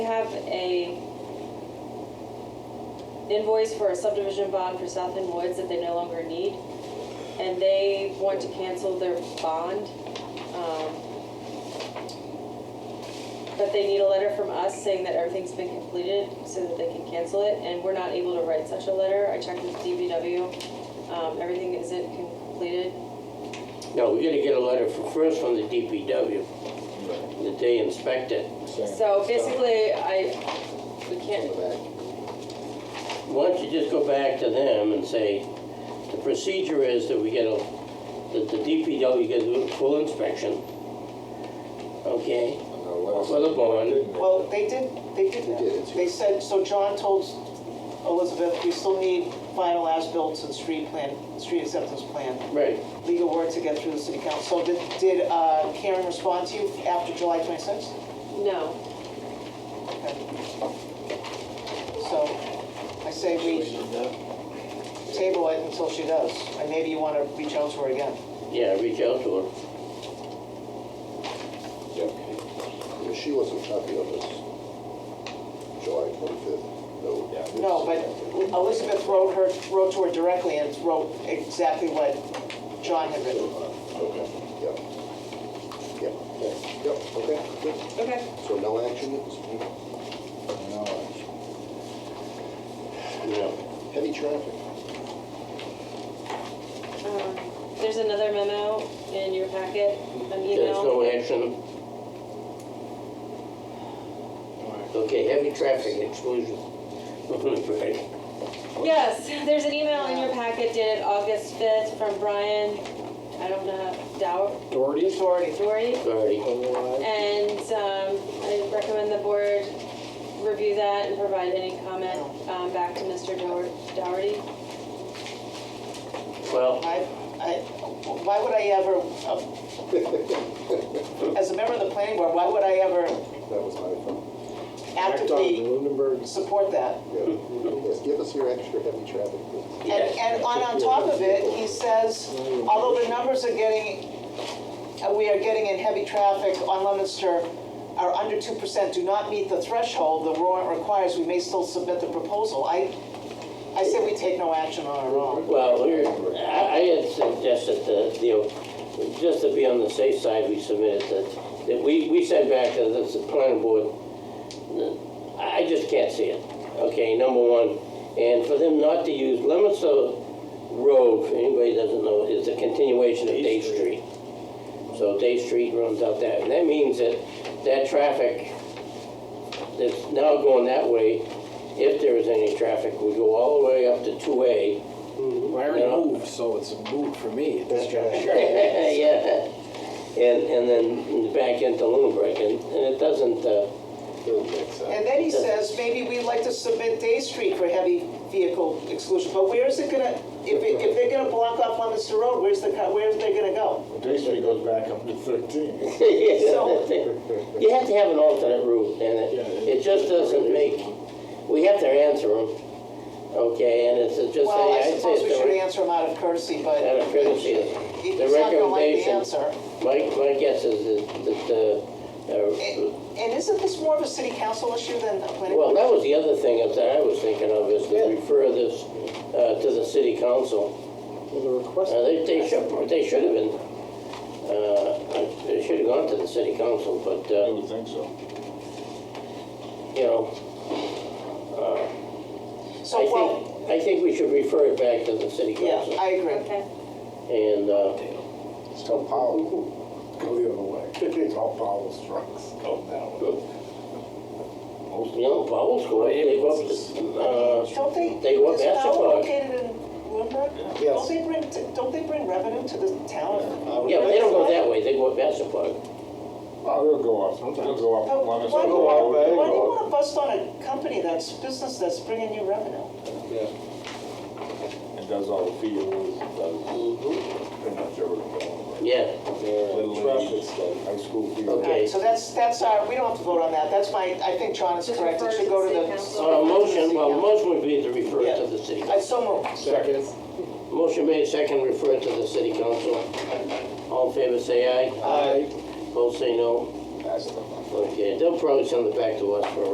We have a invoice for a subdivision bond for South End Woods that they no longer need, and they want to cancel their bond. um, But they need a letter from us saying that everything's been completed so that they can cancel it, and we're not able to write such a letter. I checked with DBW, um, everything isn't completed. No, we're gonna get a letter fr- first from the DPW, that they inspect it. So basically, I, we can't, Why don't you just go back to them and say, the procedure is that we get a, that the DPW gets a full inspection, okay? Well, the bond. Well, they did, they did They did, it's- that. They said, so John told Elizabeth, we still need final as-built and street plan, street acceptance plan, Right, legal work to get through the city council. So did- Did uh, Karen respond to you after July 26th? no. Okay. So I say we table it until she does, and maybe you want to reach out to her again. yeah, reach out to her. Yeah, She wasn't happy on this July 25th, no. No, but Elizabeth wrote her, wrote to her directly and wrote exactly what John had written. Okay, yep. Yep, yep, okay, good. Okay. So no action, it's No. heavy traffic. Um, There's another memo in your packet, an There's email. no action. Okay, heavy traffic exclusion. Right. Yes, there's an email in your packet dated August 5th from Brian, I don't know, Dow, Doherty? Doherty. Dory. Sorry. And um, I recommend the board review that and provide any comment um, back to Mr. Dower- Dougherty. Well, I, I, why would I ever, uh, as a member of the planning board, why would I ever That was my fault. actively Lunenburg's. support that? Yeah. Yes, give us your extra heavy traffic, please. And, and on, on top of it, he says, although the numbers are getting, uh, we are getting in heavy traffic on Leominster are under two percent, do not meet the threshold the warrant requires, we may still submit the proposal. I, I say we take no action on our own. Well, we're- I I had suggested that, you know, just to be on the safe side, we submitted that, that we, we sent back to the planning board, I I just can't see it, okay, number one. And for them not to use, Lemonster Road, for anybody that doesn't know, is a continuation of Day Street. So Day Street runs out there, and that means that that traffic that's now going that way, if there is any traffic, would go all the way up to two A, I already moved, so it's a move for me at this juncture. Yeah, and, and then back into Lunenburg, and, and it doesn't, uh, Doesn't make sense. And then he says, maybe we'd like to submit Day Street for heavy vehicle exclusion, but where is it gonna, if, it- if they're gonna block off Leominster Road, where's the, car- where's they gonna go? Day Street goes back up to 13. you have to have an alternate route, and Yeah, it, it- it just doesn't make, we have to answer them, okay, and it's just, Well, I say- I'd say suppose we it's should the, answer him out of courtcy, but. out of courtesy, He's the not gonna like the recommendation. answer. My, my guess is that, that, uh, uh, And and isn't this more of a city council issue than a planning? Well, board? that was the other thing that I was thinking of, is to Yeah. refer this uh, to the city council. Well, the request. Uh, They, they should, they should have been, uh, they should have gone to the city council, but, I uh, would think so. you know, So, I well, think, I think we should refer it back to the city yeah, council. I agree. Okay. And, uh, It's all power. Go the other way. It's all Powell's trucks go that you know, Paul's go up, they go up, to, uh, Don't they, They want is Powell basketball. located in Bloomberg? Yes. Don't they bring, t- don't they bring revenue to the town? uh, yeah, but they don't go that way, they go up Bassett Park. way. Oh, they'll go up, they'll go But up. Oh, Why do Leominster you Road, wanna- they'll why do you go want to bust on a company that's, business that's bringing you revenue? up. It does all the fields, it does Mm-hmm. pretty much everything. Yeah, Little League, high school field. Okay. So that's, that's our, we don't have to vote on that, that's my, I think John is Just correct, refer to it should the go to city the. council. uh, motion, well, motion would be to refer it to the city. I so moved. Second. Motion made, second, refer to the city council. All in favor, say aye. Aye. Both say no. Pass it on. Okay, they'll probably send it back to us for a